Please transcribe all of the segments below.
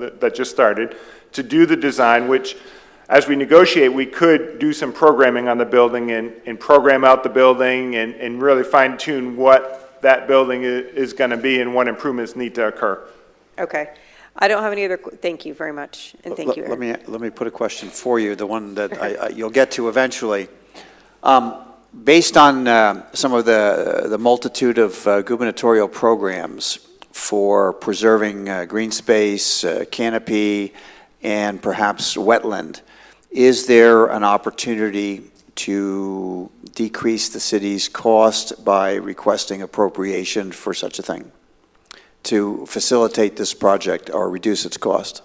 that that just started, to do the design, which, as we negotiate, we could do some programming on the building and, and program out the building and, and really fine tune what that building i- is going to be and what improvements need to occur. Okay. I don't have any other, qu- thank you very much, and thank Let- you, Let Aaron. me, let me put a question for you, the one that I, I- you'll get to eventually. Um, Based on uh, some of the, the multitude of uh, gubernatorial programs for preserving uh, green space, uh, canopy, and perhaps wetland, is there an opportunity to decrease the city's cost by requesting appropriation for such a thing? To facilitate this project or reduce its cost?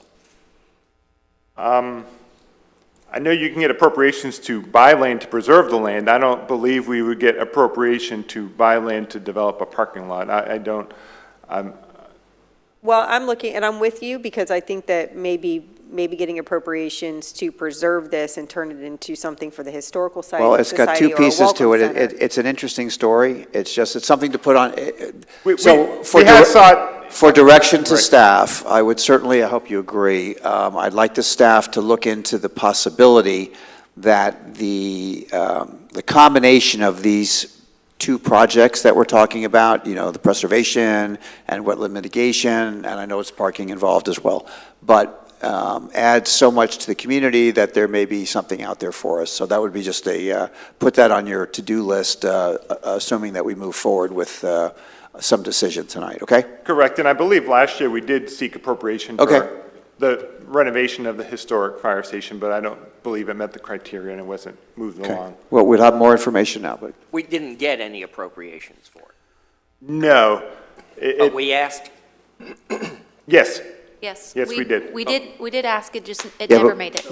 I know you can get appropriations to buy land to preserve the land. I don't believe we would get appropriation to buy land to develop a parking lot. I, I don't, Well, I'm looking, and I'm with you, because I think that maybe, maybe getting appropriations to preserve this and turn it into something for the historical site, Well, it's got two society, or a pieces to welcome it. It- center. it. It's an interesting story. It's just, it's something to put on, it- it- We- so. we- for we had dire- thought- For direction to Right. staff, I would certainly, I hope you agree, um, I'd like the staff to look into the possibility that the, um, the combination of these two projects that we're talking about, you know, the preservation and wetland mitigation, and I know it's parking involved as well, but um, add so much to the community that there may be something out there for us. So that would be just a, uh, put that on your to-do list, uh, assuming that we move forward with uh, some decision tonight, okay? correct, and I believe last year we did seek appropriation Okay. for the renovation of the historic fire station, but I don't believe it met the criteria and it wasn't moved Okay. along. Well, we'll have more information now, but We didn't get any appropriations for it, No. It- but it- we asked, Yes, Yes. Yes, we did. Oh. We did, we did ask, it just, it Yeah, but- never made it.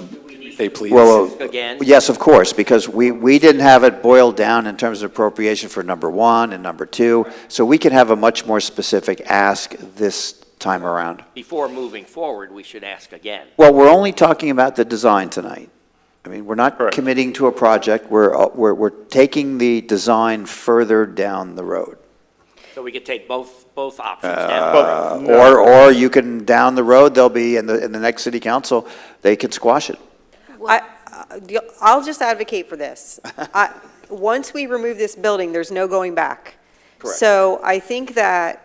They please. Well, well, Again? Yes, of course, because we, we didn't have it boiled down in terms of appropriation for number one and number two, so we can have a much more specific ask this time around. before moving forward, we should ask again. Well, we're only talking about the design tonight. I mean, we're not Correct. committing to a project, we're, uh, we're, we're taking the design further down the road. So we could take both, both options now. but Uh, Or, or you can, down the road, they'll be, in the, in the next city council, they can squash it. I, I- Uh, the- I'll just advocate for this. I- Once we remove this building, there's no going back. Correct. So I think that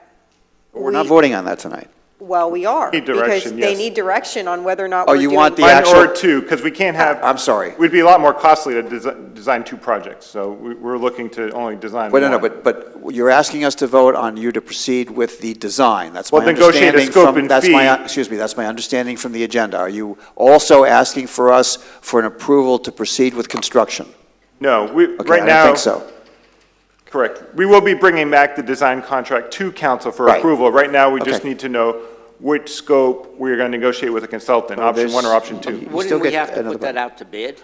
But we're not we- voting on that tonight. Well, we are. Need Because direction, they yes. need direction on whether or not Oh, we're you doing. want the one or actual- two, because we can't have. I'm sorry. We'd be a lot more costly to desi- design two projects, so we- we're looking to only design Well, one. no, no, but, but you're asking us to vote on you to proceed with the design. That's my Well, negotiate a understanding scope from, and that's my, fee. excuse me, that's my understanding from the agenda. Are you also asking for us for an approval to proceed with construction? No, we, Okay, right now. I don't think so. Correct. We will be bringing back the design contract to council for Right. approval. Right now, we just Okay. need to know which scope we're going to negotiate with a consultant, Well, option one or there's- option two. still Wouldn't we get have to another put that out to bid?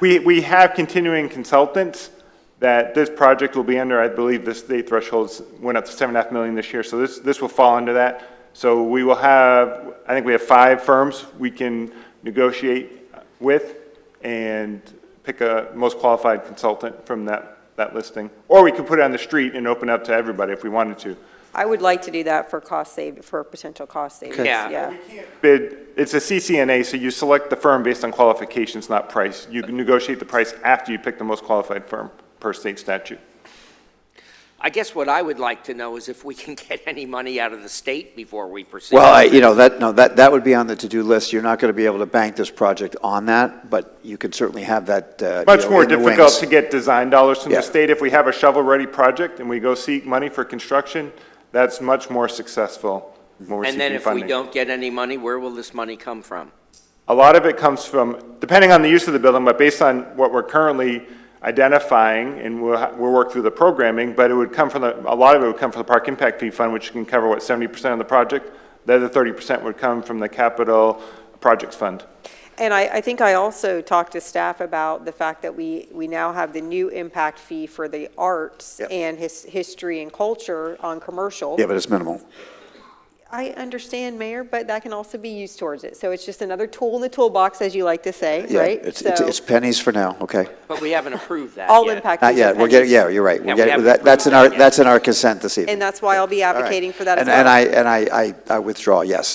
We, we have continuing consultants that this project will be under, I believe the state thresholds went up to seven and a half million this year, so this, this will fall under that. So we will have, I think we have five firms we can negotiate with and pick a most qualified consultant from that, that listing. Or we could put it on the street and open up to everybody if we wanted to. I would like to do that for cost save, for potential cost savings, Yeah. yeah. bid, it's a CCNA, so you select the firm based on qualifications, not price. You can negotiate the price after you pick the most qualified firm per state statute. I guess what I would like to know is if we can get any money out of the state before we proceed. Well, I- you know, that, no, that, that would be on the to-do list. You're not going to be able to bank this project on that, but you can certainly have that, uh, you Much know, more in the difficult wings. to get design dollars from Yeah. the state. If we have a shovel-ready project and we go seek money for construction, that's much more successful when we're And then seeking if we funding. don't get any money, where will this money come from? A lot of it comes from, depending on the use of the building, but based on what we're currently identifying, and we'll, ha- we'll work through the programming, but it would come from the, a lot of it would come from the Park Impact Fee Fund, which can cover, what, 70% of the project? The other 30% would come from the Capital Projects Fund. And I, I think I also talked to staff about the fact that we, we now have the new impact fee for the arts Yep. and his, history and culture on commercial. Yeah, but it's minimal. I understand, Mayor, but that can also be used towards it. So it's just another tool in the toolbox, as you like to say, Yeah, right? It's, So it's it's pennies for now, okay? But we haven't approved that all yet. impact Not fees are yet, we're getting, pennies. Uh, yeah, you're right. Yeah, We're we getting, haven't that, that's in approved our, that yet. that's in our consent this evening. And that's why I'll be All right. advocating for that as And- well. And I, and I, I I withdraw, yes.